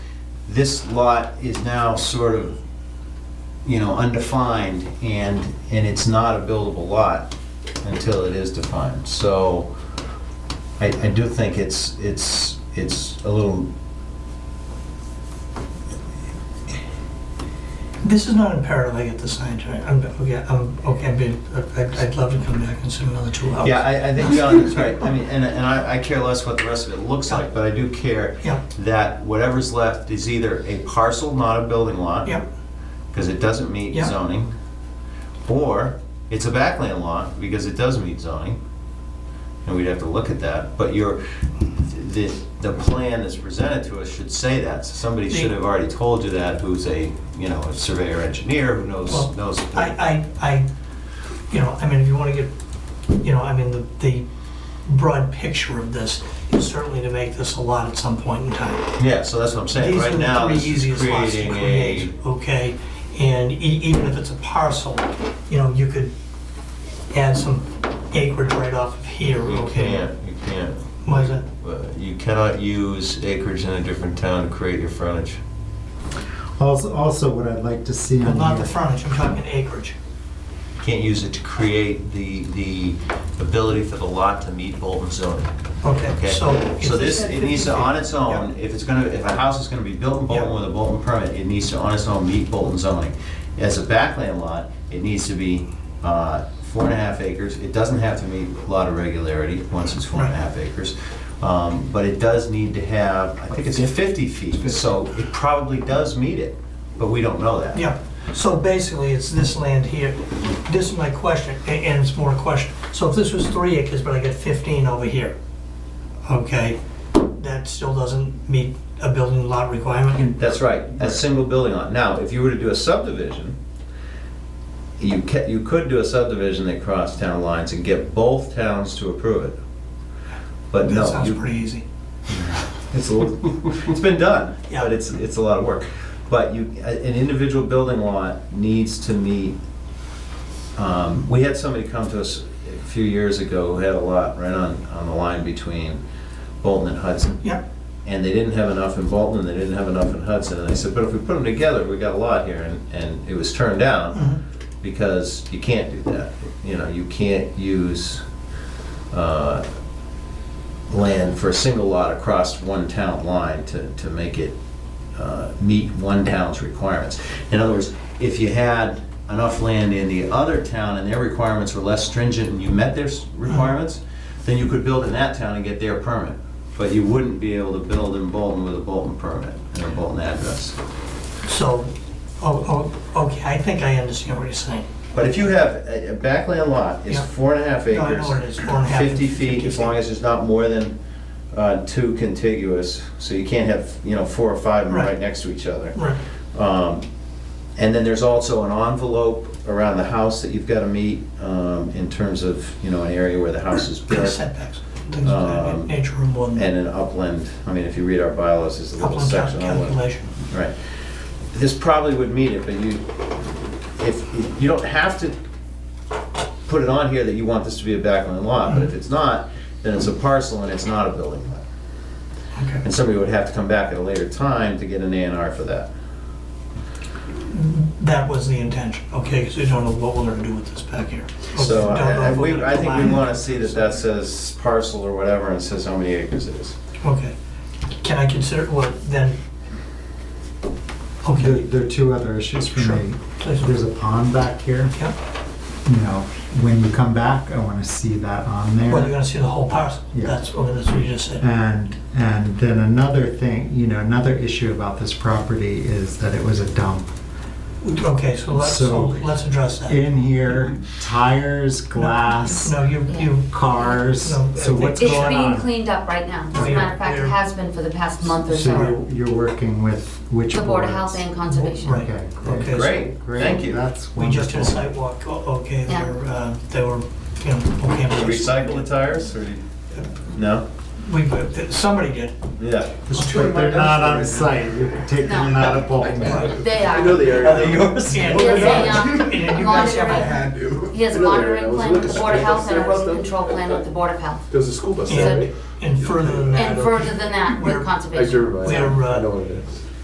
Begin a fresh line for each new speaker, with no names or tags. this lot is now sort of, you know, undefined, and, and it's not a buildable lot until it is defined. So I, I do think it's, it's, it's a little,
This is not imperative I get the sign, right? I'm, okay, I'm, okay, I'm being, I'd, I'd love to come back and sit another two hours.
yeah, I, I think John is right. I mean, and, and I, I care less what the rest of it looks like, but I do care
Yeah,
that whatever's left is either a parcel, not a building lot.
yeah,
because it doesn't meet
Yeah.
zoning, or it's a backland lot because it does meet zoning, and we'd have to look at that, but your, the, the plan that's presented to us should say that, so somebody
The-
should have already told you that, who's a, you know, a surveyor engineer who
Well,
knows, knows.
I, I, I, you know, I mean, if you wanna get, you know, I mean, the, the broad picture of this is certainly to make this a lot at some point in time.
Yeah, so that's what I'm saying,
These
right
are the
now,
three
this is
easiest lots to
creating a,
create, Okay, and e- even if it's a parcel, you know, you could add some acreage right off of here,
you
okay?
can't, you can't,
Why is that?
uh, you cannot use acreage in a different town to create your frontage.
Also, also what I'd like to see
Well,
on
Not the
here-
frontage, I'm talking acreage.
Can't use it to create the, the ability for the lot to meet Bolton zoning,
Okay,
okay?
so. if
So this,
said
it needs to,
50 feet,
on its own, if it's gonna, if a house is gonna be built in Bolton
Yeah.
with a Bolton permit, it needs to, on its own, meet Bolton zoning. As a backland lot, it needs to be uh, four and a half acres, it doesn't have to meet a lot of regularity, once it's four and a half acres. Um, But it does need to have, I think it's 50 feet, so it probably does meet it, but we don't know that.
Yeah, so basically, it's this land here, this is my question, a- and it's more a question. So if this was three acres, but I get 15 over here, okay, that still doesn't meet a building lot requirement?
That's right, a single building lot. Now, if you were to do a subdivision, you ca, you could do a subdivision that crossed town lines and get both towns to approve it. But
That
no,
sounds
you-
pretty easy.
it's a little, it's been done,
Yeah.
but it's, it's a lot of work. But you, a- an individual building lot needs to meet, um, we had somebody come to us a few years ago who had a lot right on, on the line between Bolton and Hudson
Yep.
and they didn't have enough in Bolton, and they didn't have enough in Hudson, and I said, but if we put them together, we got a lot here, and, and it was turned down,
Mhm.
because you can't do that, you know, you can't use, uh, land for a single lot across one town line to, to make it, uh, meet one town's requirements. In other words, if you had enough land in the other town and their requirements were less stringent and you met their s- requirements, then you could build in that town and get their permit. But you wouldn't be able to build in Bolton with a Bolton permit and a Bolton address.
So, oh, oh, okay, I think I understand what you're saying.
But if you have, a a backland lot is
Yeah.
four and a half acres.
No, I know what it is, four and a half.
50 feet, as long as there's not more than uh, two contiguous, so you can't have, you know, four or five of them right
Right.
next to each other.
Right,
Um, And then there's also an envelope around the house that you've got to meet um, in terms of, you know, an area where the house is
and
built
setbacks, things of that
Um,
na- nature are more than
and an upland, I mean, if you read our bylaws, there's a little
upland cal-
section. on what-
calculation.
Right. This probably would meet it, but you, if, you don't have to put it on here that you want this to be a backland lot, but if it's not, then it's a parcel and it's not a building lot.
Okay.
And somebody would have to come back at a later time to get an A and R for that.
That was the intention, okay, because we don't know what we're gonna do with this back here.
So
Oh, Don't know
I, I-
if we're
we,
gonna
I think we
combine-
wanna see that that says parcel or whatever and says how many acres it is.
Okay, can I consider, well, then,
There,
okay,
there are two other issues for
Sure.
me.
Please.
There's a pond back here.
yeah,
You know, when you come back, I want to see that on there.
well, you're gonna see the whole parcel,
Yeah.
that's, okay, that's what you just said.
And, and then another thing, you know, another issue about this property is that it was a dump.
Okay, so let's, so
So-
let's address that.
In here, tires, glass,
No, you, you,
cars,
No,
so what's
It's
It's
going
being
on?
cleaned up right now. As a
We're-
matter of fact, it
we're-
has been for the past month or
So
so.
you're, you're working with which
The
boards?
Board of Health and Conservation.
Right.
Okay,
Okay.
great.
Great,
Great,
thank you.
That's
we just did a
wonderful.
sidewalk, Oh, okay, they
Yeah.
were, uh, they were, you know, okay.
Did you
with us.
Recycle the tires or? do you- No?
We, but somebody did.
Yeah.
But they're not on site, you're taking them out of Bolton.
They are.
yours? Yeah.
He has a,
And
um,
you guys have a-
do.
He has a
Another area.
monitoring
I uh, was
plan with the
looking
Board of
straight
Health and a
at the
road
stuff.
control plan with the Board of Health.
There's a school bus
Yeah.
there, right?
And further than that.
And further than that,
We're-
with
I
conservation.
drove by.
We're, uh,
I know what it is.